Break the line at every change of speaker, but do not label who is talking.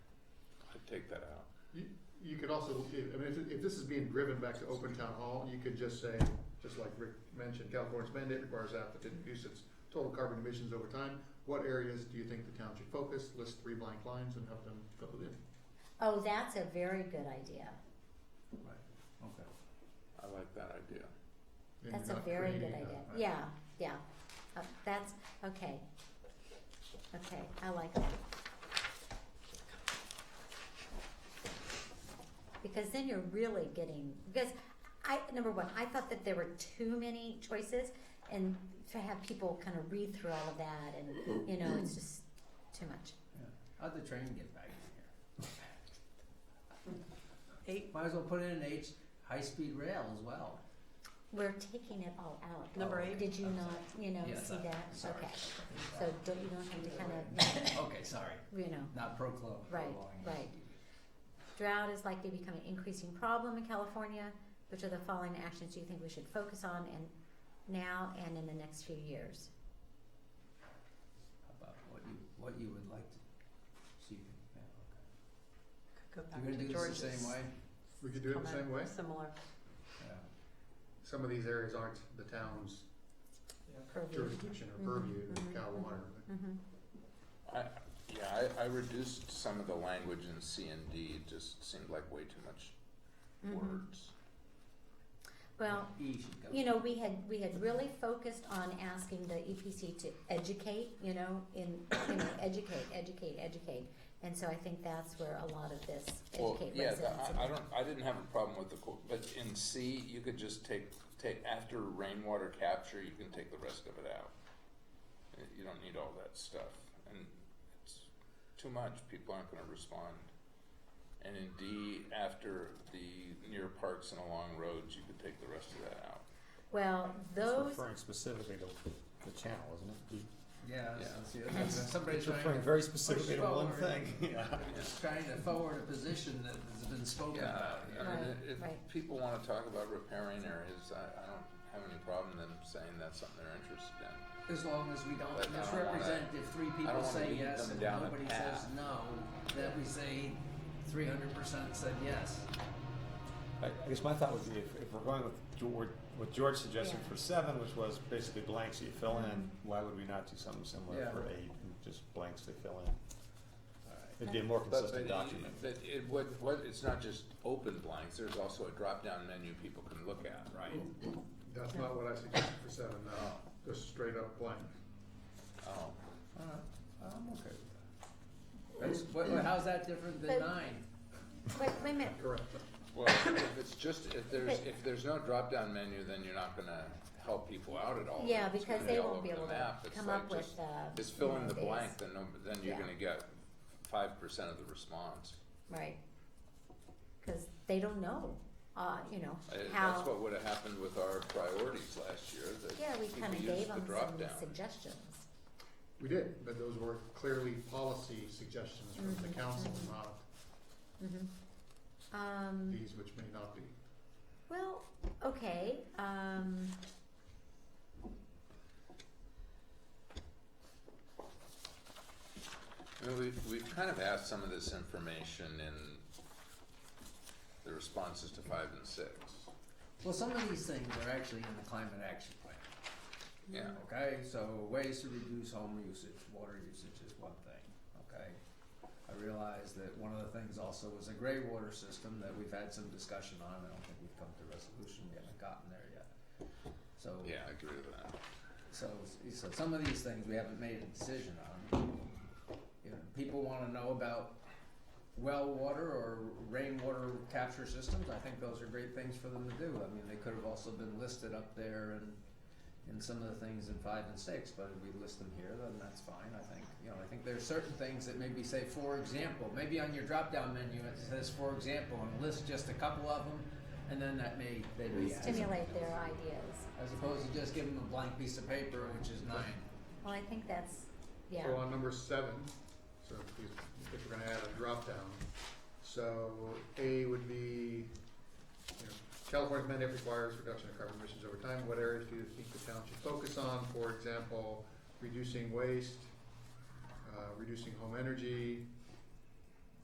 also, I mean, if, if this is being driven back to open town hall, you could just say, just like Rick mentioned, California's mandate requires applicant to reduce its total carbon emissions over time. What areas do you think the town should focus? List three blank lines and have them fill it in.
Oh, that's a very good idea.
Okay.
I like that idea.
And
That's
you're
a
not
very good
creating
idea.
a-
Yeah, yeah. Uh, that's, okay. Okay, I like that. Because then you're really getting, because I, number one, I thought that there were too many choices and to have people kind of read through all of that and, you know, it's just too much.
How'd the train get back in here? Eight, might as well put in an H, high-speed rail as well.
We're taking it all out.
Number eight?
Did you
I'm
not, you know,
Yes,
see
I-
that?
sorry.
Okay. So don't, you don't have to kind of,
Okay, sorry,
you know.
not proclaim.
Right, right. Drought is likely to become an increasing problem in California. Which of the following actions do you think we should focus on and now and in the next few years?
How about what you, what you would like to see, yeah, okay.
Go back to
You're gonna do this
George's
the same way?
We could do it the
comment,
same way.
Similar.
Yeah,
Some of these areas aren't the town's
Purview.
jurisdiction
Mhm,
or purview,
mhm,
Cal
mhm.
Water.
Mm-hmm.
Mhm.
I, yeah, I, I reduced some of the language in C and D, it just seemed like way too much
Mm-hmm.
Mhm.
words.
Well,
E should go.
you know, we had, we had really focused on asking the EPC to educate, you know, in, you know, educate, educate, educate. And so I think that's where a lot of this
Well,
educate
yeah,
residents.
the- I, I don't, I didn't have a problem with the, qu- but in C, you could just take, take, after rainwater capture, you can take the rest of it out. Uh, You don't need all that stuff, and it's too much, people aren't gonna respond. And in D, after the near parks and along roads, you could take the rest of that out.
Well, those,
referring specifically to the channel, isn't it?
Yeah,
Yeah.
that's, that's, somebody
It's
trying
referring
to
very
push
specifically to one
forward,
thing.
yeah, just trying to forward a position that has been spoken about, you
I
know?
mean,
Right,
if
right.
people wanna talk about repairing areas, I, I don't have any problem them saying that's something they're interested in.
As long as we
But
don't
I don't wanna-
misrepresent, if three
I
people
don't wanna
say
lead
yes
them
and
down a
nobody says
path.
no, that we say three hundred percent said yes.
I, I guess my thought would be if, if we're going with George, what George suggested
Yeah.
for seven, which was basically blanks that you fill in, why would we not do something similar
Yeah.
for eight, and just blanks to fill in?
Alright.
It'd be a more
But
consistent
but
document.
it- But it, what, what, it's not just open blanks, there's also a drop-down menu people can look at, right?
Mm-hmm.
That's not what I suggested for seven, no, just straight up blank.
Oh,
Alright, I'm okay with that. That's, what, what- how's that different than
But-
nine?
wait, wait a minute,
Correct.
well, if it's just, if there's, if there's no drop-down menu, then you're not gonna help people out at all.
Yeah,
It's gonna
because they
all
won't be
over the
able to
map. It's
come
like
up with,
just-
uh.
Just fill in the
days.
blank, then, no- then you're
Yeah.
gonna get five percent of the response.
Right. Cause they don't know, uh, you know,
Uh, That's
how,
what would've happened with our priorities last year, that
yeah, we kinda
people
gave
used the
them some
drop-down.
suggestions.
We did, but those were clearly policy suggestions from the
Mhm,
council,
mhm.
not
hmm Um,
these which may not be.
well, okay, um.
I mean, we've, we've kind of asked some of this information in the responses to five and six.
Well, some of these things are actually in the climate action plan.
Yeah,
Mm-hmm.
Okay, so ways to reduce home usage, water usage is one thing, okay? I realize that one of the things also is a gray water system that we've had some discussion on, I don't think we've come to resolution, we haven't gotten there yet. So,
yeah, I agree with that.
so, so some of these things we haven't made a decision on. You know, people wanna know about well water or rainwater capture systems, I think those are great things for them to do, I mean, they could have also been listed up there and and some of the things in five and six, but if we list them here, then that's fine, I think, you know, I think there's certain things that maybe say, for example, maybe on your drop-down menu, it says, for example, and list just a couple of them, and then that may, they may add something
stimulate
else.
their ideas.
As opposed to just giving them a blank piece of paper, which is nine.
Well, I think that's, yeah,
So on number seven, so if you- if we're gonna add a drop down, so A would be, you know, California's mandate requires reduction of carbon emissions over time, what areas do you think the town should focus on? For example, reducing waste, uh, reducing home energy,